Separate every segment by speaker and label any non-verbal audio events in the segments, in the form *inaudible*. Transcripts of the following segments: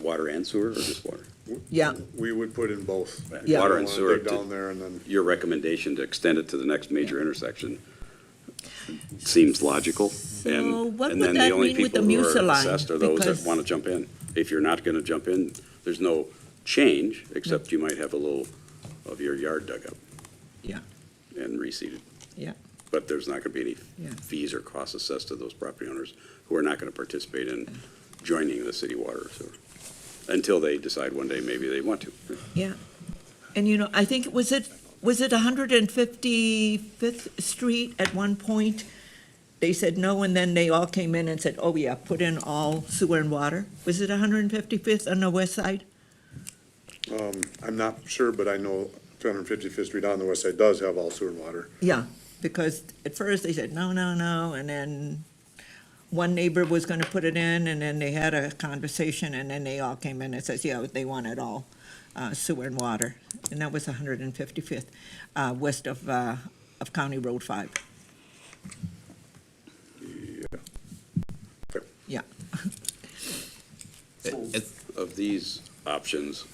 Speaker 1: water and sewer or just water?
Speaker 2: Yeah,
Speaker 3: We would put in both.
Speaker 1: Right.
Speaker 2: Yeah.
Speaker 1: Water and
Speaker 3: Wanna
Speaker 1: sewer
Speaker 3: dig
Speaker 1: to-
Speaker 3: Down there and then,
Speaker 1: Your recommendation to extend it to the next major intersection seems logical. and-
Speaker 2: So what
Speaker 1: and
Speaker 2: would
Speaker 1: then the
Speaker 2: that
Speaker 1: only
Speaker 2: mean with
Speaker 1: people
Speaker 2: the
Speaker 1: who are
Speaker 2: Mucil line?
Speaker 1: assessed Are those that
Speaker 2: Because-
Speaker 1: want to jump in. If you're not going to jump in, there's no change, except you might have a little of your yard dug up
Speaker 2: yeah,
Speaker 1: and reseeded.
Speaker 2: yeah,
Speaker 1: But there's not going to be
Speaker 2: Yeah.
Speaker 1: any fees or costs assessed to those property owners who are not going to participate in joining the city water or sewer, until they decide one day maybe they want to.
Speaker 2: yeah. And you know, I think, was it, was it 155th Street at one point? They said no, and then they all came in and said, oh yeah, put in all sewer and water. Was it 155th on the west side?
Speaker 3: um, I'm not sure, but I know two hundred and fifty-fifth Street on the west side does have all sewer and water.
Speaker 2: Yeah, because at first they said, no, no, no, and then one neighbor was gonna put it in, and then they had a conversation, and then they all came in and says, yeah, they want it all, uh, sewer and water. And that was one hundred and fifty-fifth, uh, west of, uh, of County Road five.
Speaker 3: Okay.
Speaker 2: Yeah,
Speaker 1: Of these options,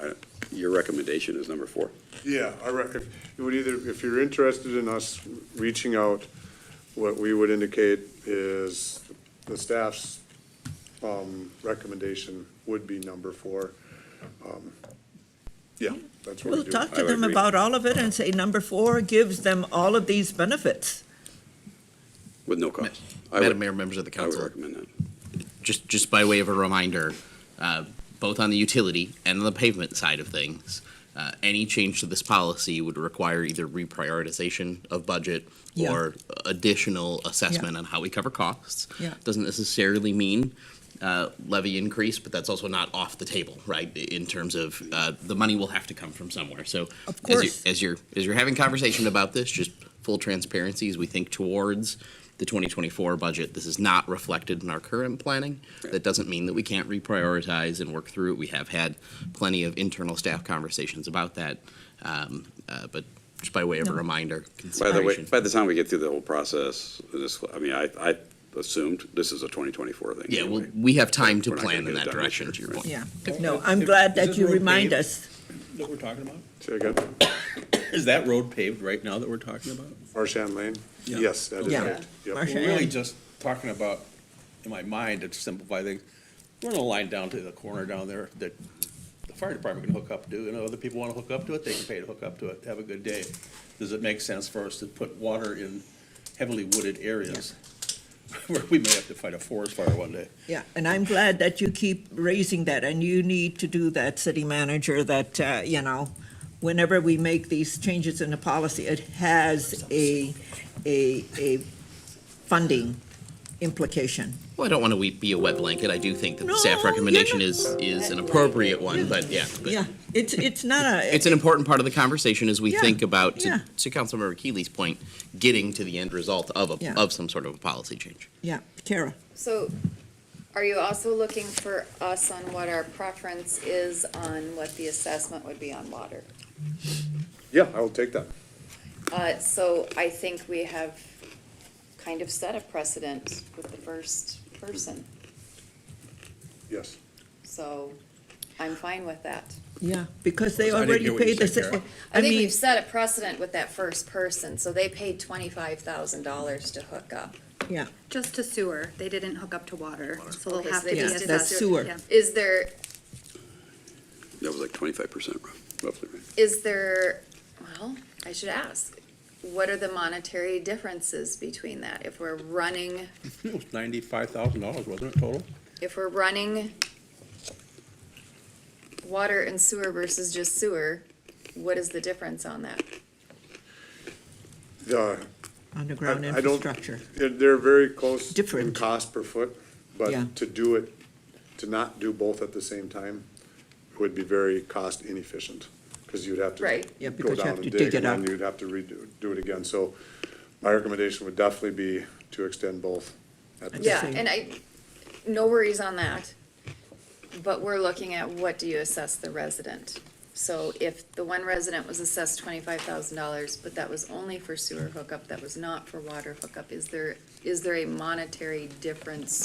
Speaker 1: I- your recommendation is number four.
Speaker 3: Yeah, I rec, if, it would either, if you're interested in us reaching out, what we would indicate is the staff's, um, recommendation would be number four. Um, Yeah, that's what we
Speaker 2: we'll
Speaker 3: do.
Speaker 2: talk
Speaker 1: I
Speaker 2: to
Speaker 1: would
Speaker 2: them
Speaker 1: agree.
Speaker 2: about all of it and say, number four gives them all of these benefits.
Speaker 1: With no cost. I would-
Speaker 4: Madam Mayor, members of the
Speaker 1: I would
Speaker 4: council,
Speaker 1: recommend that.
Speaker 4: just, just by way of a reminder, uh, both on the utility and the pavement side of things, uh, any change to this policy would require either reprioritization of budget
Speaker 2: Yeah.
Speaker 4: or additional assessment on how we cover costs.
Speaker 2: Yeah.
Speaker 4: Doesn't necessarily mean uh, levy increase, but that's also not off the table, right? In terms of uh, the money will have to come from somewhere. So
Speaker 2: Of
Speaker 4: as you-
Speaker 2: course.
Speaker 4: as you're as you're having conversation about this, just full transparency as we think towards the 2024 budget, this is not reflected in our current planning. That doesn't mean that we can't reprioritize and work through it. We have had plenty of internal staff conversations about that, um, uh, but just by way of
Speaker 2: No.
Speaker 4: a reminder,
Speaker 1: By the way,
Speaker 4: consideration.
Speaker 1: by the time we get through the whole process, this, I mean, I, I assumed this is a 2024 thing.
Speaker 4: yeah, well,
Speaker 1: anyway.
Speaker 4: we have time to
Speaker 1: We're not gonna
Speaker 4: plan
Speaker 1: get
Speaker 4: in
Speaker 1: it
Speaker 4: that
Speaker 1: done this
Speaker 4: direction.
Speaker 1: year,
Speaker 4: To your
Speaker 1: right.
Speaker 4: point,
Speaker 2: Yeah, no, I'm
Speaker 5: Is-
Speaker 2: glad
Speaker 5: is
Speaker 2: that
Speaker 5: this
Speaker 2: you
Speaker 5: road
Speaker 2: remind
Speaker 5: paved?
Speaker 2: us.
Speaker 5: that we're talking about?
Speaker 3: Say again,
Speaker 5: Is that road paved right now that we're talking about?
Speaker 3: Marshan Lane?
Speaker 5: Yeah.
Speaker 3: Yes, that is
Speaker 2: Yeah.
Speaker 3: right. Yep.
Speaker 2: Marsh-
Speaker 5: We're really
Speaker 2: And-
Speaker 5: just talking about, in my mind, to simplify things, we're gonna line down to the corner down there that the fire department can hook up to, and other people wanna hook up to it, they can pay to hook up to it, have a good day. Does it make sense for us to put water in heavily wooded areas? Where *laughs* we may have to fight a forest fire one day.
Speaker 2: Yeah, and I'm glad that you keep raising that, and you need to do that, city manager, that, uh, you know, whenever we make these changes in the policy, it has a, a, a funding implication.
Speaker 4: well, I don't want to be a wet blanket. I do think that the
Speaker 2: No,
Speaker 4: staff
Speaker 2: you're
Speaker 4: recommendation
Speaker 2: not-
Speaker 4: is is an appropriate one, but yeah, but-
Speaker 2: Yeah, it's, it's not a,
Speaker 4: it's an important part of the conversation as we
Speaker 2: Yeah,
Speaker 4: think about,
Speaker 2: yeah.
Speaker 4: to, to Councilmember Keeley's point, getting to the end result of a,
Speaker 2: Yeah.
Speaker 4: of some sort of a policy change.
Speaker 2: yeah, Kara,
Speaker 6: So are you also looking for us on what our preference is on what the assessment would be on water?
Speaker 3: Yeah, I will take that.
Speaker 6: Uh, so I think we have kind of set a precedent with the first person,
Speaker 3: Yes.
Speaker 6: so I'm fine with that.
Speaker 2: yeah, because they
Speaker 5: I didn't
Speaker 2: already
Speaker 5: hear what you
Speaker 2: paid the,
Speaker 5: said,
Speaker 2: sa-
Speaker 5: Kara.
Speaker 2: I
Speaker 6: I think
Speaker 2: mean,
Speaker 6: we've set a precedent with that first person, so they paid twenty-five thousand dollars to hook up.
Speaker 2: yeah,
Speaker 7: Just to sewer, they didn't hook up to water, so
Speaker 6: Okay,
Speaker 7: they'll
Speaker 6: so
Speaker 7: have to
Speaker 6: they
Speaker 7: be
Speaker 2: yeah,
Speaker 6: just did
Speaker 2: that's
Speaker 7: assessed.
Speaker 6: that.
Speaker 2: sewer.
Speaker 7: Yeah.
Speaker 6: Is there,
Speaker 1: That was like 25% rough- roughly, right?
Speaker 6: is there, well, I should ask, what are the monetary differences between that? If we're running,
Speaker 5: It was ninety-five thousand dollars, wasn't it, total?
Speaker 6: if we're running water and sewer versus just sewer, what is the difference on that?
Speaker 3: The,
Speaker 2: underground
Speaker 3: I- I don't-
Speaker 2: infrastructure.
Speaker 3: They're, they're very close in
Speaker 2: Different.
Speaker 3: cost per foot,
Speaker 2: Yeah.
Speaker 3: but to do it, to not do both at the same time would be very cost inefficient, because you'd have to
Speaker 6: Right.
Speaker 2: Yeah,
Speaker 3: go
Speaker 2: because you have
Speaker 3: down and
Speaker 2: to dig
Speaker 3: dig, and
Speaker 2: it
Speaker 3: then
Speaker 2: up.
Speaker 3: you'd have to redo, do it again. So my recommendation would definitely be to extend both. at the
Speaker 6: Yeah,
Speaker 2: same.
Speaker 6: and I, no worries on that, but we're looking at what do you assess the resident? So if the one resident was assessed twenty-five thousand dollars, but that was only for sewer hookup, that was not for water hookup, is there, is there a monetary difference